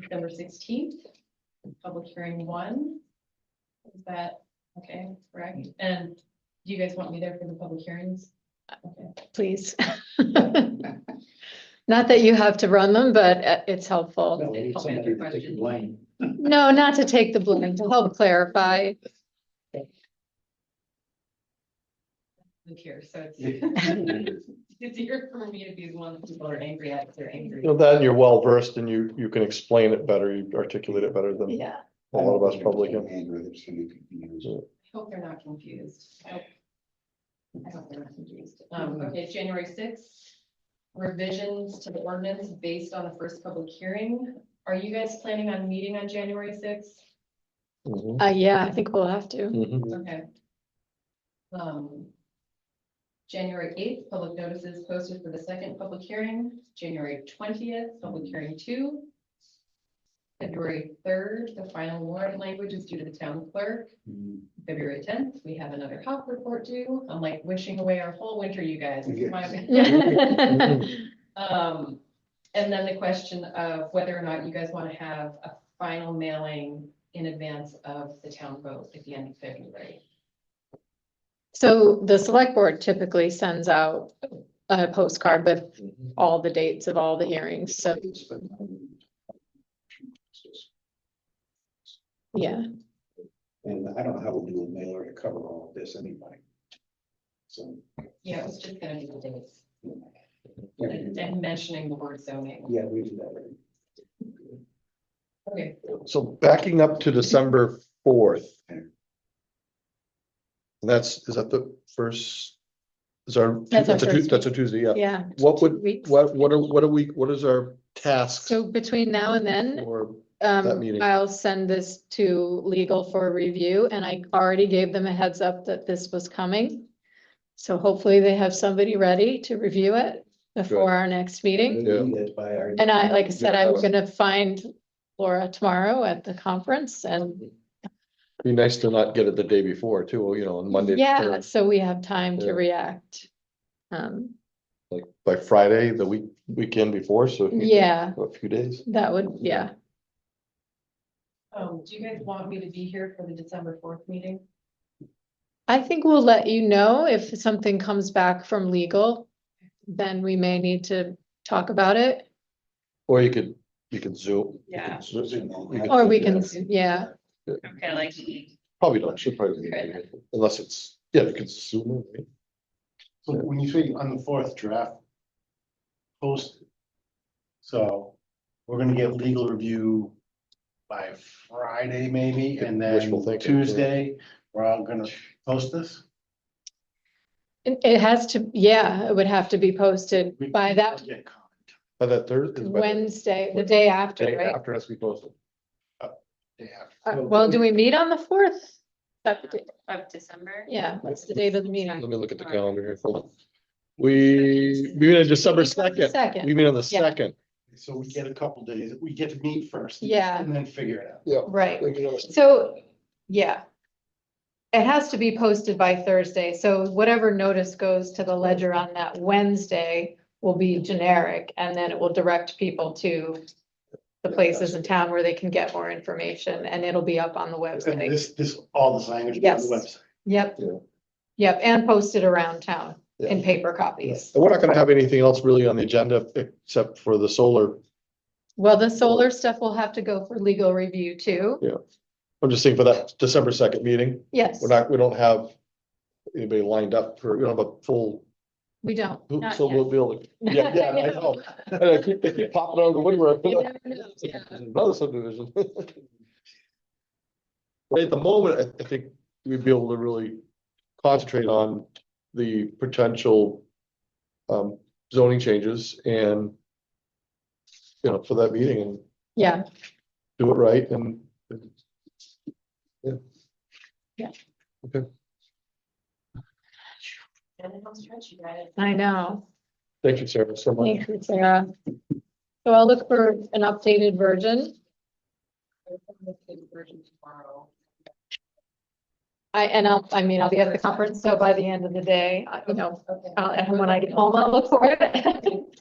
December sixteenth, public hearing one. Is that, okay, correct? And do you guys want me there for the public hearings? Okay, please. Not that you have to run them, but uh, it's helpful. No, we need somebody to take the blame. No, not to take the blame, to help clarify. I'm here, so it's. Well, It's easier for me to be the one that people are angry at, if they're angry. You know, that and you're well versed and you, you can explain it better, you articulate it better than Yeah. a lot of us probably can. I Hope they're not confused. I hope- I hope they're not confused. Um, okay, it's January sixth, revisions to the ordinance based on the first public hearing. Are you guys planning on meeting on January sixth? Mhm. Uh, yeah, I think we'll have to. Mhm. Okay. Um. January eighth, public notices posted for the second public hearing, January twentieth, public hearing two. February third, the final warrant language is due to the town clerk. February tenth, we have another health report due. I'm like wishing away our whole winter, you guys. It's my- Um, and then the question of whether or not you guys want to have a final mailing in advance of the town vote at the end of February. So the select board typically sends out a postcard with Mm-hmm. all the dates of all the hearings, so, yeah. And I don't know how we'll do a mailer to cover all of this anyway. So. Yeah, it was just gonna be the dates and Yeah, and mentioning the word zoning. Yeah, we do that. Okay, So backing up to December fourth. That's, is that the first? Is our, That's our that's a, Tu- first that's a Tuesday, yeah. Yeah. What two would, weeks. what, what are, what are we, what is our task? So between now and then, Or, um, meeting. I'll send this to legal for review and I already gave them a heads up that this was coming. So hopefully they have somebody ready to review it before our next meeting. Yeah. That's by our. And I, like I said, I'm Mm-hmm. Yeah. gonna find Laura tomorrow at the conference Mm-hmm. and be nice to not get it the day before too, you know, on Monday. yeah, or, so we have time to Yeah. react. Um, Like by Friday, the week, weekend before, so. if you- yeah, A few days. that would, yeah, um, do you guys want me to be here for the December fourth meeting? I think we'll let you know if something comes back from legal. Then we may need to talk about it. Or you could, you could zoom. Yeah. You could zoom. You could- Or we can, yeah, yeah, Okay, like. Probably not, should probably, unless it's, yeah, you can zoom. in, right? So when you say on the fourth draft. Posted. So we're gonna get legal review by Friday maybe, and then Wishful thinking, yeah. Tuesday, we're all gonna post this. it, it has to, yeah, it would have to be posted We- by that Get comment By that Thursday. by the Wednesday, the day after, Day right? after us, we post it. day after. Uh, Well, do we meet on the fourth? Of December? Yeah, that's the date of the meeting. Let me look at the calendar here. Hold on. We, we meet on December second. We Second, meet on the Yeah. second. So we get a couple days, we get to meet first. Yeah. And then figure it out. Yeah. right, We meet on the second. so, yeah. It has to be posted by Thursday, so whatever notice goes to the ledger on that Wednesday will be generic, and then it will direct people to the places in town where they can get more information, and it'll be up on the And website. this, this, all the signage on Yes. the website. Yep. Yeah. Yep, and posted around town in Yeah. paper copies. And we're not gonna have anything else really on the agenda except for the solar. Well, the solar stuff will have to go for legal review too. I'm just saying for that December second meeting, Yes, we're not, we don't have anybody lined up for, we don't have a full we don't. Not So we'll be able to, yeah, yeah, I know. And I keep, they keep popping out of the woodwork. You never know, yeah. Another subdivision. But At the moment, I- I think we'd be able to really concentrate on the potential um, zoning changes and you know, for that meeting and Yeah, do it right and And then I'll stretch you guys. I know. thank you, Sarah, so much. Thank you, Sarah. So I'll look for an updated version. I'll send this to the version tomorrow. I, and I'll, I mean, I'll be at the conference, so by the end of the day, I- you know, Okay. I'll- and when I get home, I'll look for it.